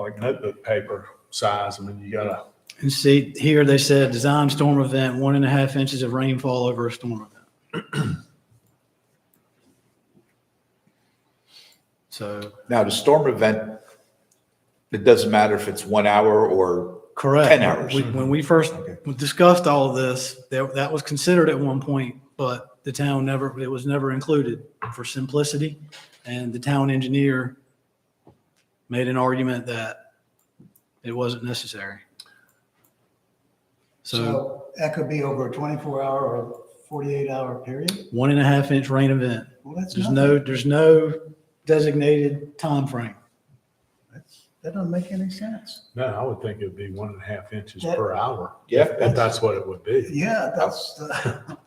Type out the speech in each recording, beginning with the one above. like notebook paper size. I mean, you gotta, And see, here they said design storm event, one and a half inches of rainfall over a storm event. So, Now, the storm event, it doesn't matter if it's one hour or, correct. 10 hours. We- When we first discussed all of this, that, that was considered at one point, but the town never, it was never included for simplicity. And the town engineer made an argument that it wasn't necessary. So So that could be over a 24-hour or 48-hour period? one and a half inch rain event. Well, that's There's nothing. no, there's no designated time frame. That's- That doesn't make any sense. no, I would think it'd be one and a half inches That- per hour. Yeah, If that's what it would be. Yeah, that's, the-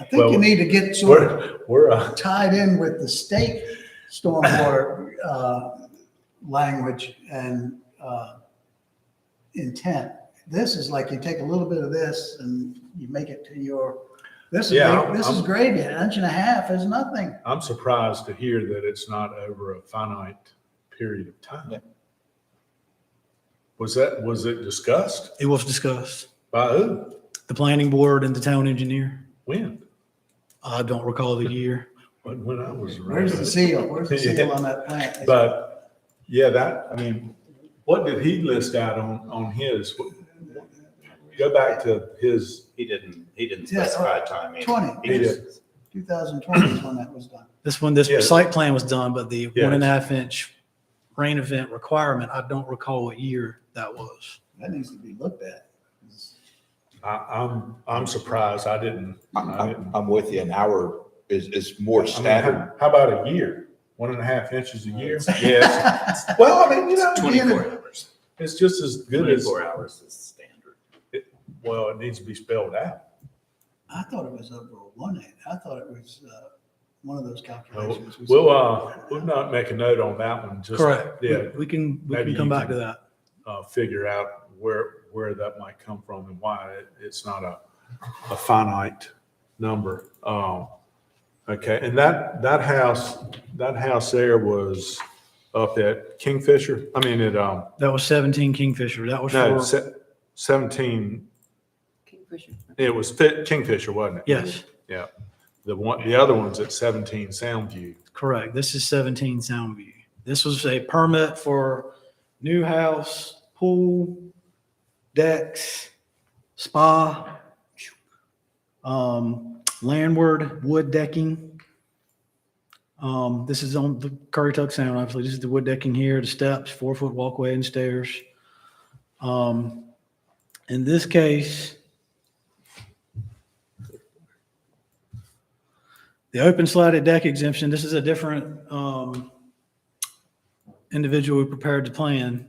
I think Well, you need to get sort of We're, we're, uh, tied in with the state stormwater uh, language and uh, intent. This is like you take a little bit of this and you make it to your, this is, Yeah, this is I'm- gravy, an inch and a half is nothing. I'm surprised to hear that it's not over a finite period of time. Yeah. Was that, was it discussed It was discussed. by who? The planning board and the town engineer. When? I don't recall the year. When, when I was around. Where's the seal? Where's the seal on that plant? But, yeah, that, I mean, what did he list out on, on his? Go back to his, He didn't, he didn't Yeah, specify a time. either. 20. He He just- 2020 is when that was done. This one, this Yeah. site plan was done, but the one and a Yes. half inch rain event requirement, I don't recall what year that was. That needs to be looked at. I, I'm, I'm surprised I didn't. I'm, I I'm- didn't. I'm with you, an hour is, is more I mean, standard. How about a year? One and a half inches a year? Yes. Well, I mean, you know, again, Twenty-four hours. it's just as good as, Twenty-four hours is standard. well, it needs to be spelled out. I thought it was over a one eight. I thought it was uh, one of those calculations. we We'll, saw. uh, we'll not make a note on that one, just. Correct. Yeah, We- We can, we Maybe can you come back to can- that. uh, figure out where, where that might come from and why it, it's not a, a finite number. Um, okay, and that, that house, that house there was up at Kingfisher, I mean, at, um, That was 17 Kingfisher. That was no, for, se- seventeen, Kingfisher. it was Fi- Kingfisher, wasn't it? yes, Yeah, the one, the other one's at seventeen Soundview. correct. This is 17 Soundview. This was a permit for new house, pool, decks, spa, um, landward wood decking. Um, this is on the Curry Tuck Sound, obviously. This is the wood decking here, the steps, four foot walkway and stairs. Um, in this case, the open slatted deck exemption, this is a different, um, individual who prepared the plan.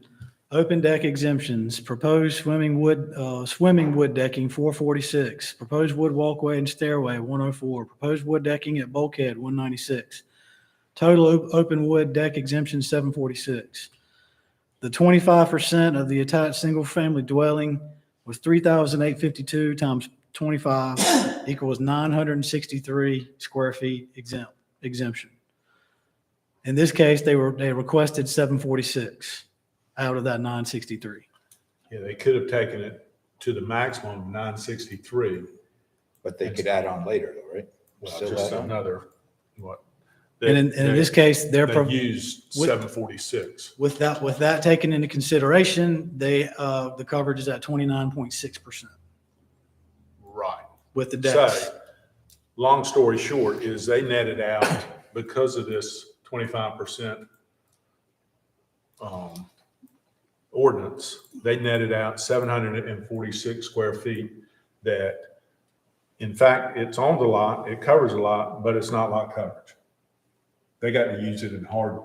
Open deck exemptions, proposed swimming wood, uh, swimming wood decking, four forty-six, proposed wood walkway and stairway, one oh four, proposed wood decking at bulkhead, one ninety-six. Total op- open wood deck exemption, seven forty-six. The twenty-five percent of the attached single-family dwelling was three thousand eight fifty-two times twenty-five equals nine hundred and sixty-three square feet exempt, exemption. In this case, they were, they requested seven forty-six out of that nine sixty-three. Yeah, they could have taken it to the maximum of nine sixty-three, But they could add on later, though, right? well, Still just add on? another, what? And in, and in this case, they're, pro- They used with- seven forty-six. with that, with that taken into consideration, they, uh, the coverage is at twenty-nine point six percent Right. with the decks. So, long story short is they netted out because of this twenty-five percent um, ordinance, they netted out seven hundred and forty-six square feet that in fact, it's on the lot, it covers a lot, but it's not lot coverage. They got to use it in hard,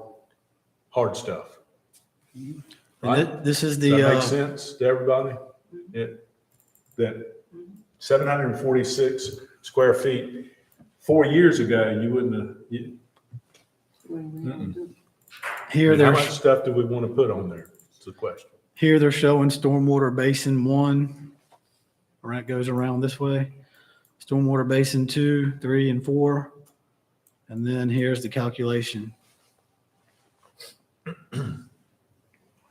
hard stuff. And thi- this is Does the, that make uh, sense to everybody? It, that seven hundred and forty-six square feet, four years ago, you wouldn't have, you, here how there's. much stuff do we want to put on there? It's the question. Here they're showing stormwater basin one. Right, goes around this way. Stormwater basin two, three, and four. And then here's the calculation.